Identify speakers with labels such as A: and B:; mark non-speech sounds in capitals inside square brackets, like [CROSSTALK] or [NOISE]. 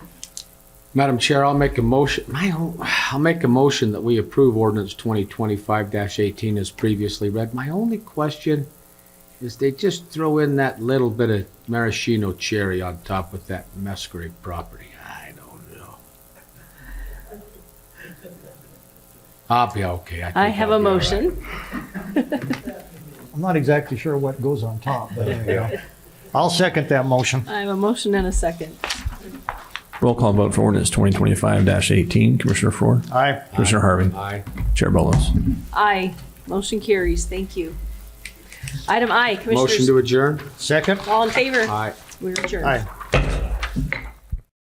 A: Madam Chair, I'll make a motion, my, own- I'll make a motion that we approve ordinance twenty twenty-five eighteen as previously read. My only question is they just throw in that little bit of maraschino cherry on top with that Musgrave property. I don't know. I'll be okay. think
B: I have
A: I'll
B: a
A: be all right.
B: motion.
C: I'm not exactly sure what goes on top, but there you go. [LAUGHS] I'll second that motion.
B: I have a motion and a second.
D: Roll call vote for ordinance 2025-18. Commissioner Ford?
C: Aye.
D: Commissioner Harvey?
A: Aye.
D: Chair Bolos?
B: Aye. Motion carries. Thank you. Item I,
A: Motion
B: Commissioners,
A: to adjourn?
C: Second?
B: all in favor?
A: Aye.
B: We're adjourned.
C: Aye.